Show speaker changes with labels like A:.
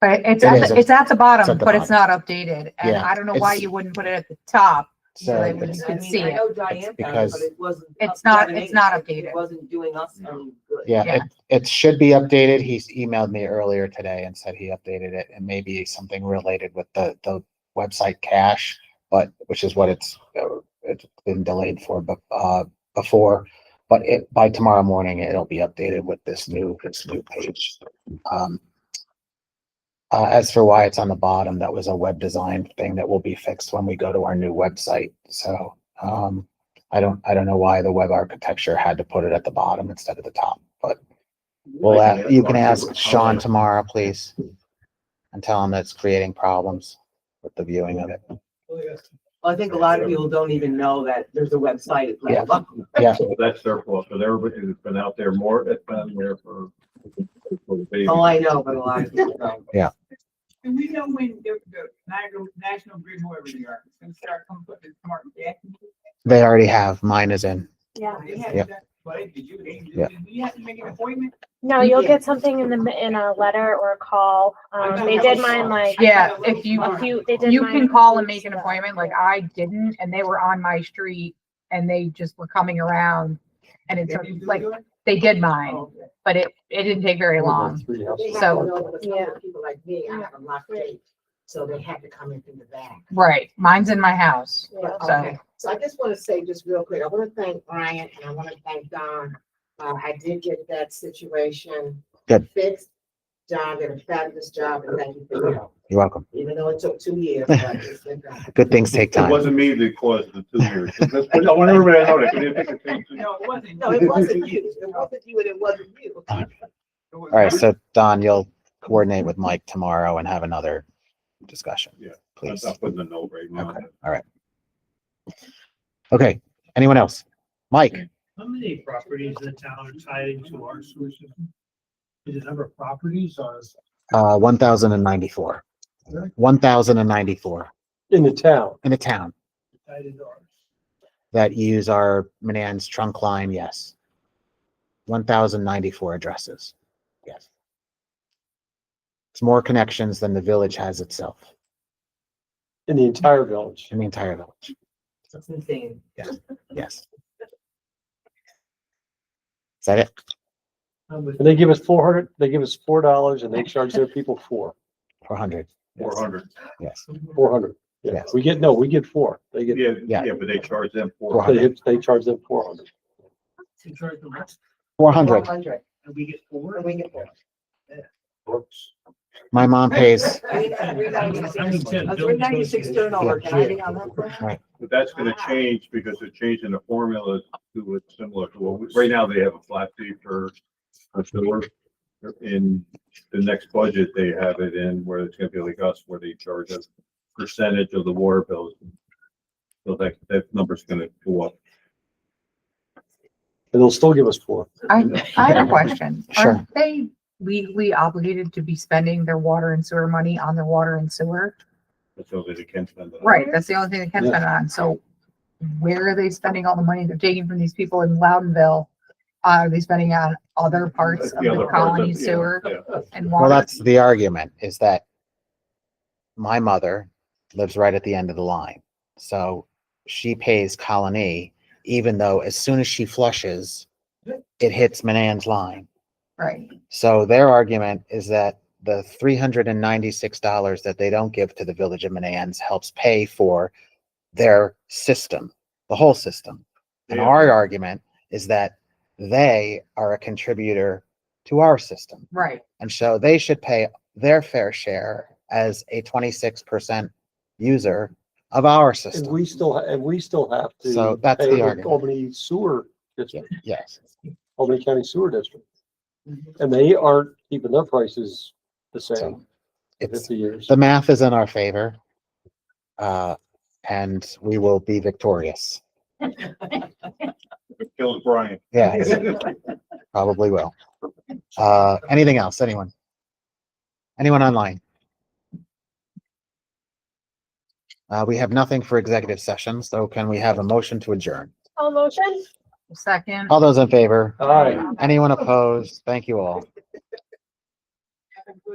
A: But it's
B: It
A: at,
B: is,
A: the- it's at the bottom,
B: at the
A: but it's not updated, and
B: Yeah,
A: I don't know why
B: it's-
A: you wouldn't put it at the top.
B: So
A: Really,
B: it's-
A: you
C: I
A: can
C: mean,
A: see
C: I
A: it.
C: know Diane found it,
B: because-
C: but it wasn't.
A: It's not-
C: updated.
A: it's not updated.
C: It wasn't doing us any good.
B: Yeah,
A: Yeah.
B: it, it should be updated. He's emailed me earlier today and said he updated it and maybe something related with the, the website cache, but, which is what it's, uh, it's been delayed for, but, uh, before. But it, by tomorrow morning, it'll be updated with this new, this new page. Um, uh, as for why it's on the bottom, that was a web design thing that will be fixed when we go to our new website. So, um, I don't, I don't know why the web architecture had to put it at the bottom instead of the top, but well, uh, you can ask Sean tomorrow, please. And tell him that's creating problems with the viewing of it.
C: Well, I think a lot of people don't even know that there's a website.
B: Yeah. Yeah,
D: Well, That's their fault, because everybody who's been out there more, it's been there for. for the baby.
C: Oh, I know, but a lot of people don't.
E: Do we know when the, the National, National Grid, whoever they are, is gonna start coming up with smart jackets?
B: they already have. Mine is in.
F: Yeah,
E: They haven't
B: Yep.
E: done- But did you, they,
B: Yeah.
E: did we have to make an appointment?
F: no, you'll get something in the, ma- in a letter or a call. Um, they did mine like
A: Yeah, if you,
F: a few, they did.
A: you
F: mine
A: can
F: a
A: call
F: few
A: and
F: weeks
A: make an
F: ago.
A: appointment, like I didn't, and they were on my street, and they just were coming around. And it's
E: Did you do
A: like,
E: yours?
A: they did
E: Oh,
A: mine,
E: okay.
A: but it, it didn't take very long. So-
F: Yeah.
G: People like me, I have a locked gate, so they had to come in through the back.
A: Right, mine's in my house,
F: Yeah.
A: so,
G: So I just want to say just real quick, I want to thank Brian and I want to thank Don. Uh, I did get that situation
B: Good.
G: fixed. John did a fabulous job and thank you for your help,
B: You're welcome.
G: even though it took two years. but it's been done.
B: Good things take
D: It
B: time.
D: wasn't me that caused the two years. That's- I want everybody to know that. 'cause they think it's-
E: No, it wasn't.
G: No, it wasn't you. It wasn't you and it wasn't you.
E: It was-
B: All right, so Don, you'll coordinate with Mike tomorrow and have another discussion.
D: Yeah, I'm
B: Please.
D: not putting a note right now.
B: Okay. Okay, anyone else? Mike,
H: How many properties in the town are tied into our sewer system? Is it number of properties or?
B: uh, one thousand and ninety-four. One thousand and ninety-four
I: In the town,
B: in a town
H: tied into ours?
B: that use our Manans trunk line, yes. One thousand ninety-four addresses, yes. It's more connections than the village has itself,
I: in the entire village.
B: in the entire village,
C: It's insane.
B: yes. Is that it?
H: How much-
I: And they give us four hundred, they give us four dollars and they charge their people four,
B: Four hundred?
D: Four hundred.
B: Yes,
I: four hundred. Yeah,
B: Yes.
I: we get, no, we get four. They get,
D: Yeah,
B: Yeah.
D: yeah, but they charge them
B: Four
D: four.
B: hundred.
D: hundred.
I: they, they charge them four hundred.
H: To charge them less,
B: four hundred.
G: Hundred.
H: and we get four?
G: And we get that.
B: My mom pays,
C: A three ninety-six turnover, can I be on that? for a minute?
D: But that's gonna change because they're changing the formula to what's similar to what, we- right now they have a flat fee for for sewer. In the next budget, they have it in where it's gonna be like us, where they charge us percentage of the water bills. So that, that number's gonna go up.
I: And they'll still give us four.
A: I, I have a question.
B: Sure.
A: Aren't they legally obligated to be spending their water and sewer money on their water and sewer?
D: So that it can spend. it.
A: Right, that's the only thing they can
I: Yeah.
A: spend it on, so where are they spending all the money they're taking from these people in Loudonville? Uh, Are they spending on other parts
D: That's
A: of
D: the
A: the
D: other part
A: colony
D: that- yeah,
A: sewer
D: yeah.
A: and
B: well,
A: water?
B: that's the argument, is that my mother lives right at the end of the line. So she pays Colony, even though as soon as she flushes, it hits Manan's line.
A: Right,
B: So their argument is that the three hundred and ninety-six dollars that they don't give to the village of Manans helps pay for their system, the whole system. And
D: Yeah.
B: our argument is that they are a contributor to our system.
A: right,
B: And so they should pay their fair share as a twenty-six percent user of our
I: And
B: system.
I: we still, ha- and we still have to.
B: So that's the
I: pay
B: argument.
I: Albany Sewer District,
B: Yes,
I: Albany County Sewer District. And they aren't keeping their prices the
B: So
I: same for
B: it's,
I: fifty years.
B: the math is in our favor. Uh, and we will be victorious.
D: Kills Brian.
B: Yeah, it's- probably will. Uh, anything else, anyone? Anyone online? Uh, we have nothing for executive session, so can we have a motion to adjourn?
F: All Oh, motion?
A: second.
B: All those in favor?
I: All right.
B: Anyone opposed? Thank you all.